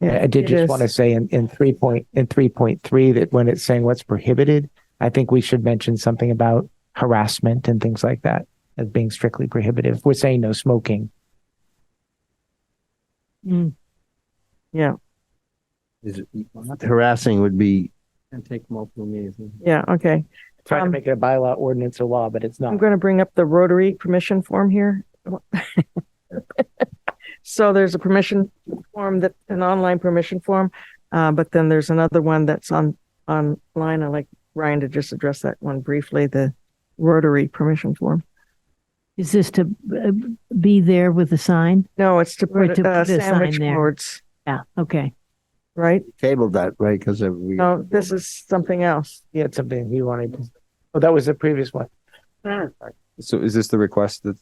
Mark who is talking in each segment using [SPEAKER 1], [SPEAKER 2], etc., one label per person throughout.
[SPEAKER 1] Yeah, I did
[SPEAKER 2] It
[SPEAKER 1] just want to
[SPEAKER 2] is.
[SPEAKER 1] say in, in three point, in three point three, that when it's saying what's prohibited, I think we should mention something about harassment and things like that as being strictly prohibitive. We're saying no smoking.
[SPEAKER 3] Is it- Harassing would be,
[SPEAKER 4] And take multiple meetings.
[SPEAKER 2] Yeah, okay.
[SPEAKER 1] Trying to
[SPEAKER 2] Um,
[SPEAKER 1] make it a bylaw, ordinance, or law, but it's
[SPEAKER 2] I'm
[SPEAKER 1] not.
[SPEAKER 2] going to bring up the Rotary permission form here. So there's a permission form that, an online permission form, uh, but then there's another one that's on, online. I'd like Ryan to just address that one briefly, the Rotary permission form.
[SPEAKER 5] Is this to uh, be there with a sign?
[SPEAKER 2] No, it's to
[SPEAKER 5] Or
[SPEAKER 2] put,
[SPEAKER 5] to
[SPEAKER 2] uh,
[SPEAKER 5] put a sign
[SPEAKER 2] sandwich
[SPEAKER 5] there.
[SPEAKER 2] boards,
[SPEAKER 5] Yeah, okay.
[SPEAKER 2] right?
[SPEAKER 3] tabled that, right? Because we.
[SPEAKER 2] No, this is something else.
[SPEAKER 1] He had something he wanted. to- Oh, that was the previous one.
[SPEAKER 6] So is this the request that's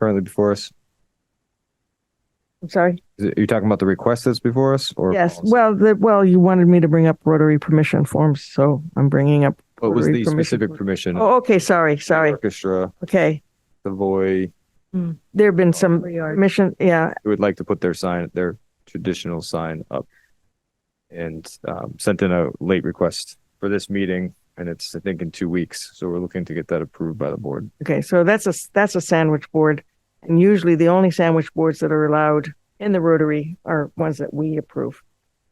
[SPEAKER 6] currently before us?
[SPEAKER 2] I'm sorry.
[SPEAKER 6] Is it- Are you talking about the request that's before us or?
[SPEAKER 2] Yes,
[SPEAKER 6] policy?
[SPEAKER 2] well, the, well, you wanted me to bring up Rotary permission forms, so I'm bringing up.
[SPEAKER 6] What was
[SPEAKER 2] Rotary
[SPEAKER 6] the
[SPEAKER 2] permission
[SPEAKER 6] specific
[SPEAKER 2] form.
[SPEAKER 6] permission?
[SPEAKER 2] Oh, okay, sorry, sorry.
[SPEAKER 6] Orchestra,
[SPEAKER 2] Okay,
[SPEAKER 6] Savoy,
[SPEAKER 2] there've been some permission, yeah,
[SPEAKER 6] who would like to put their sign, their traditional sign up. And um, sent in a late request for this meeting and it's, I think, in two weeks. So we're looking to get that approved by the board.
[SPEAKER 2] okay, so that's a, that's a sandwich board. And usually the only sandwich boards that are allowed in the Rotary are ones that we approve.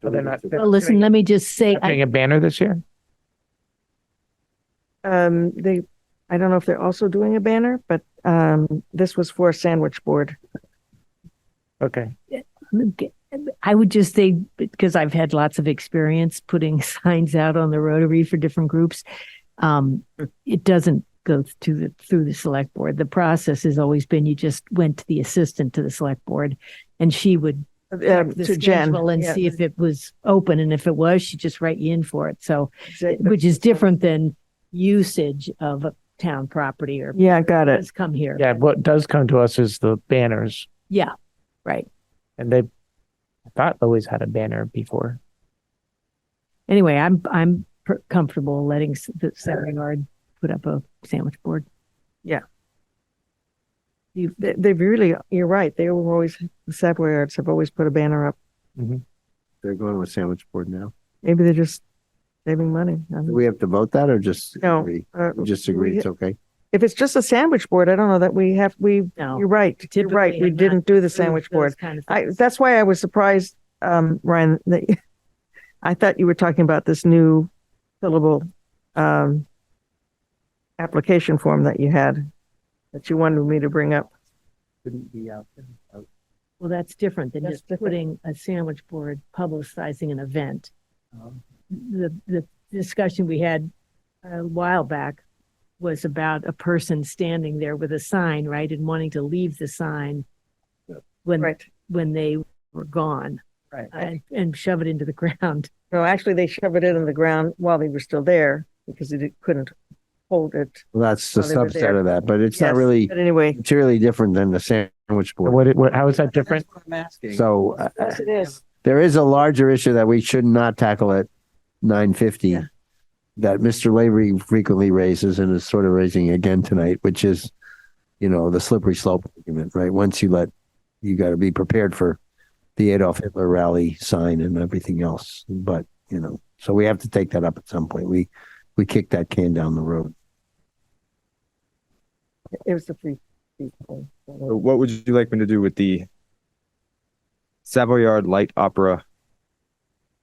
[SPEAKER 1] So they're not. they're
[SPEAKER 5] Well, listen,
[SPEAKER 1] doing-
[SPEAKER 5] let me just say,
[SPEAKER 1] they're
[SPEAKER 5] I-
[SPEAKER 1] Doing a banner this year?
[SPEAKER 2] Um, they, I don't know if they're also doing a banner, but, um, this was for a sandwich board.
[SPEAKER 1] Okay.
[SPEAKER 5] I would just say, because I've had lots of experience putting signs out on the Rotary for different groups. Um, it doesn't go to the, through the select board. The process has always been, you just went to the assistant to the select board and she would
[SPEAKER 2] Um,
[SPEAKER 5] check the
[SPEAKER 2] to Jen.
[SPEAKER 5] schedule and
[SPEAKER 2] Yeah,
[SPEAKER 5] see if it was open. And if it was, she'd just write you in for it. So,
[SPEAKER 2] exact-
[SPEAKER 5] which is different than usage of a town property or
[SPEAKER 2] Yeah, got it.
[SPEAKER 5] has come here.
[SPEAKER 1] Yeah, what does come to us is the banners
[SPEAKER 5] Yeah, right.
[SPEAKER 1] and they, I thought always had a banner before.
[SPEAKER 5] Anyway, I'm, I'm per- comfortable letting s- the salary guard put up a sandwich board.
[SPEAKER 2] You, they- they've really, you're right, they were always, the Savoy Arts have always put a banner up.
[SPEAKER 3] They're going with sandwich board now.
[SPEAKER 2] Maybe they're just saving money. I
[SPEAKER 3] Do
[SPEAKER 2] don't-
[SPEAKER 3] we have to vote that or just?
[SPEAKER 2] No.
[SPEAKER 3] agree?
[SPEAKER 2] uh,
[SPEAKER 3] We Just agree,
[SPEAKER 2] we-
[SPEAKER 3] it's okay.
[SPEAKER 2] If it's just a sandwich board, I don't know that we have, we,
[SPEAKER 5] No.
[SPEAKER 2] you're right, you're right,
[SPEAKER 5] Typically,
[SPEAKER 2] we
[SPEAKER 5] I'm not
[SPEAKER 2] didn't do the
[SPEAKER 5] those-
[SPEAKER 2] sandwich
[SPEAKER 5] those
[SPEAKER 2] board.
[SPEAKER 5] kind of
[SPEAKER 2] I,
[SPEAKER 5] things.
[SPEAKER 2] that's why I was surprised, um, Ryan, that I thought you were talking about this new fillable, um, application form that you had, that you wanted me to bring up.
[SPEAKER 4] Couldn't be out there.
[SPEAKER 5] Well, that's different than
[SPEAKER 2] That's
[SPEAKER 5] just
[SPEAKER 2] different.
[SPEAKER 5] putting a sandwich board publicizing an event. The, the discussion we had a while back was about a person standing there with a sign, right, and wanting to leave the sign when, when they were gone
[SPEAKER 2] right.
[SPEAKER 5] and, and shove it into the ground.
[SPEAKER 2] No, actually, they shoved it in the ground while they were still there because they didn't- couldn't hold it.
[SPEAKER 3] Well, That's the
[SPEAKER 2] Well, they were there.
[SPEAKER 3] subset of that, but it's not
[SPEAKER 2] Yes,
[SPEAKER 3] really
[SPEAKER 2] But anyway,
[SPEAKER 3] materially different than the sandwich board.
[SPEAKER 1] What, what, how is that different?
[SPEAKER 4] I'm asking.
[SPEAKER 3] So uh,
[SPEAKER 2] yes, it is.
[SPEAKER 3] there is a larger issue that we should not tackle at nine fifty
[SPEAKER 2] Yeah.
[SPEAKER 3] that Mr. Lavery frequently raises and is sort of raising again tonight, which is, you know, the slippery slope argument, right? Once you let, you got to be prepared for the Adolf Hitler rally sign and everything else. But, you know, so we have to take that up at some point. We, we kick that can down the road.
[SPEAKER 2] It was the free. free thing.
[SPEAKER 6] So Uh, What would you like me to do with the Savoyard Light Opera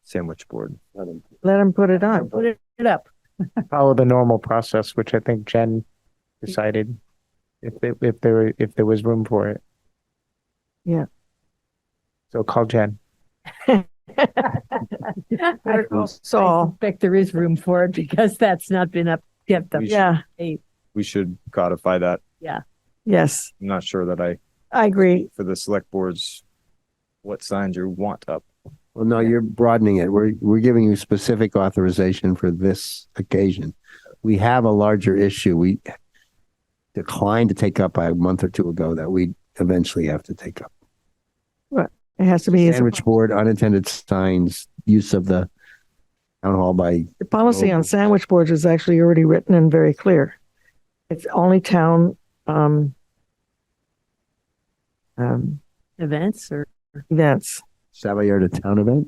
[SPEAKER 6] sandwich board?
[SPEAKER 2] Let them put it on.
[SPEAKER 5] Put it- it up.
[SPEAKER 1] follow the normal process, which I think Jen decided if they, if there were, if there was room for it.
[SPEAKER 2] Yeah.
[SPEAKER 1] So call Jen.
[SPEAKER 5] I I
[SPEAKER 2] Saul.
[SPEAKER 5] suspect there is room for it because that's not been up, kept up.
[SPEAKER 6] We should-
[SPEAKER 2] Yeah,
[SPEAKER 6] We should codify that.
[SPEAKER 2] yes,
[SPEAKER 6] I'm not sure that I
[SPEAKER 2] I agree.
[SPEAKER 6] for the select boards, what signs you want up.
[SPEAKER 3] Well, no, you're broadening it. We're, we're giving you specific authorization for this occasion. We have a larger issue we declined to take up a month or two ago that we eventually have to take up.
[SPEAKER 2] It has to be a
[SPEAKER 3] Sandwich board, unattended signs, use of the town hall by,
[SPEAKER 2] The policy on sandwich boards is actually already written and very clear. It's only town, um, um,
[SPEAKER 5] Events or
[SPEAKER 2] events.
[SPEAKER 3] Savoyard, a town event?